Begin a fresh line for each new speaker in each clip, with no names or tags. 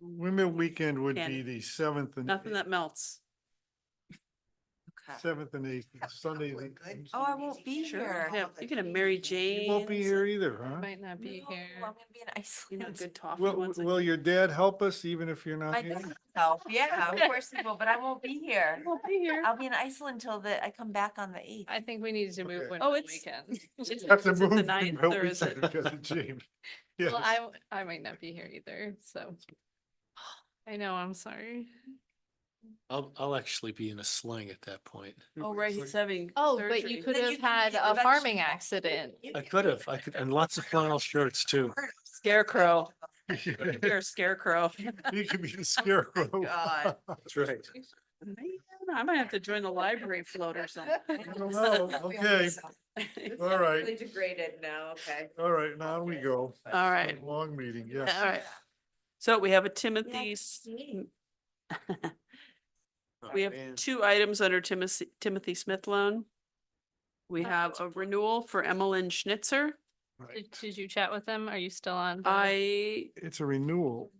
Windmill Weekend would
Can't-
be the seventh and,
Nothing that melts.
Okay.
seventh and eighth, Sunday. the-
Oh, I won't be
Sure.
here.
Yeah, You can have Mary Jane.
You won't be here either, huh?
Might not be
No, I'm
here.
gonna be in Iceland.
Good toffee
Will,
ones. like-
will your dad help us even if you're
I
not here?
think so. Yeah, of course it will, but I won't be here.
I'll be here.
I'll be in Iceland till the, I come back on the eighth.
I think we need to move
Okay.
one
Oh,
on the
it's-
weekend.
Is
Have to
it the
move
ninth
Windmill
or is
Weekend
it-
because of James. Yes.
Well, I, w- I might not be here either, so. I know, I'm sorry.
I'll, I'll actually be in a sling at that point.
Oh, right, he's having.
Oh, but
surgery.
you could
Then
have
you can
had
get
a
the
farming
vegetable.
accident.
You
I
can
could
be
have, I
like
could,
a
and lots of flannel shirts too.
bird.
Scarecrow.
You
You're Oh a scarecrow.
could be the scarecrow.
God.
That's right.
Man, I might have to join the library float or something.
I don't know. Okay, all right,
degraded now, okay.
all right, now we go.
All right.
Long meeting, yes.
All right. So we have a Timothy's.
me.
We have two items under Timothy, Timothy Smith loan. We
Oh,
have a renewal for Emmeline Schnitzer.
Did, did you chat with them? Are you still on? the-
I,
It's a renewal.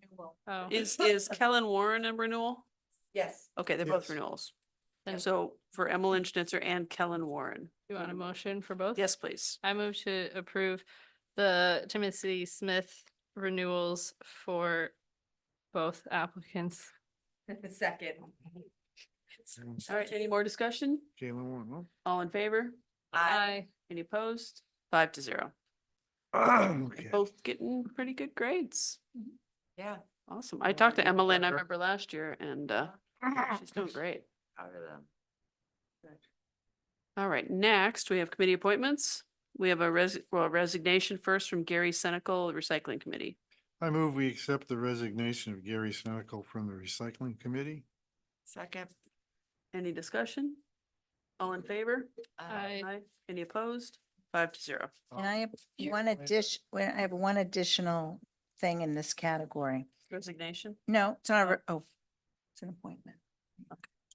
Oh,
is, is Kellen Warren a renewal?
Yes.
Okay, they're both
Yes.
renewals.
Then-
So for Emmeline Schnitzer and Kellen Warren.
you want a motion for both?
Yes, please.
I move to approve the Timothy Smith renewals for both applicants.
Second.
Jalen
All right, any more discussion?
Warren, huh?
All in favor?
Uh,
Any opposed? Five to zero.
Okay.
Both getting pretty good grades.
Yeah.
Awesome. I talked to Emmeline, I
Better.
remember last year and uh, she's doing great.
Out of them.
All right, next we have committee appointments. We have a res- well resignation first from Gary Senical, Recycling Committee.
I move we accept the resignation of Gary Snodgrass from the Recycling Committee.
Second.
Any discussion? All in favor?
Uh,
Aye.
Any opposed? Five to zero.
And I have
Here,
one
wait.
addition, I have one additional thing in this category.
Resignation.
No, it's not, a re- oh, it's an appointment.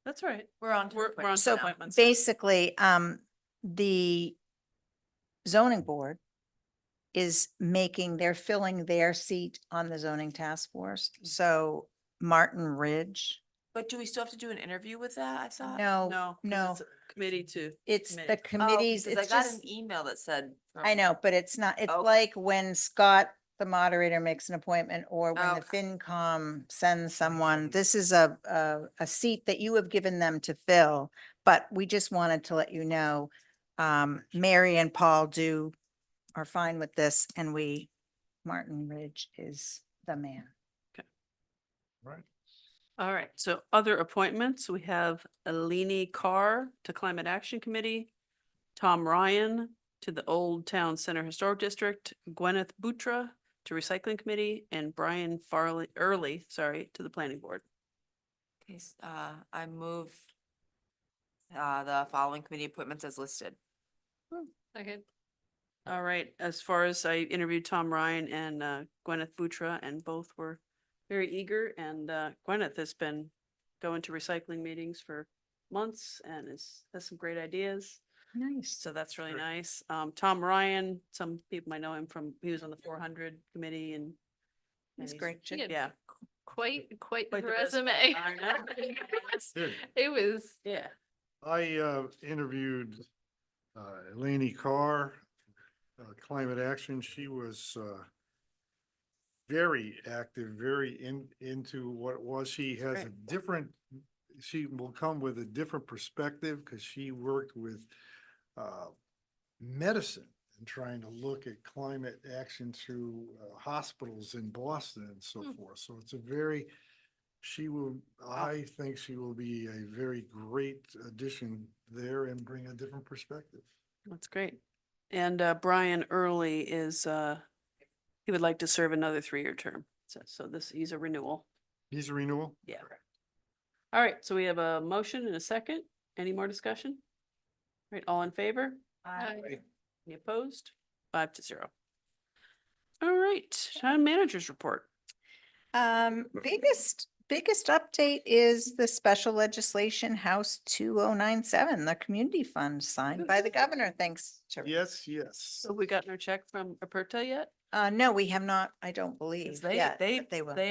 That's all right.
We're on. to
We're, we're on to
appointments
So
now.
appointments.
Basically, um, the zoning board is making, they're filling their seat on the zoning task force.
Mm.
So Martin Ridge,
But do we still have to do an interview with that? I thought.
no,
No. 'cause
no.
it's a Committee to,
it's the
committee.
Oh,
committees,
because
it's
I got
just,
an email that said.
I
from-
know, but it's not, it's
Okay.
like when Scott, the moderator, makes an appointment or when the
Okay.
FinCom sends someone. This is a, a, a seat that you have given them to fill, but we just wanted to let you know, um, Mary and Paul do, are fine with this and we, Martin Ridge is the man.
Right.
all right. So other appointments, we have Alini Carr to Climate Action Committee, Tom Ryan to the Old Town Center Historic District, Gwyneth Butra to Recycling Committee, and Brian Farley, Early, sorry, to the Planning Board.
Okay, s- uh, I move uh, the following committee appointments as listed.
Second.
All right, as far as I interviewed Tom Ryan and uh, Gwyneth Butra, and both were very eager, and uh, Gwyneth has been going to recycling meetings for months and is, has some great ideas,
Nice.
so that's really
Sure.
nice. Um, Tom Ryan, some people might know him from, he was on the four hundred committee and and
He's a great.
He
chick.
had
Yeah.
Quite, quite
Quite
the
the resume.
resume.
I know.
Dude.
It was,
yeah,
I uh, interviewed uh, Laney Carr, uh, Climate Action. She was uh, very active, very in, into what it was. She has a
Great.
different, she will come with a different perspective because she worked with uh, medicine and trying to look at climate action through uh, hospitals in Boston and so
Hmm.
forth. So it's a very, she will, I think she will be a very great addition there and bring a different perspective.
that's great. And uh, Brian Early is, uh, he would like to serve another three-year term, so, so this, he's a renewal.
He's a renewal?
Yeah. All right, so we have a motion and a second. Any more discussion? All Right, all in favor?
uh,
Aye.
Any opposed? Five to zero. All right, town managers report.
Um, biggest, biggest update is the special legislation House two oh nine seven, the community fund signed by the governor, thanks to.
Yes, yes.
So we gotten our check from Aperta yet?
Uh, no, we have not, I don't believe.
they-
yet,
they-
but They will.
they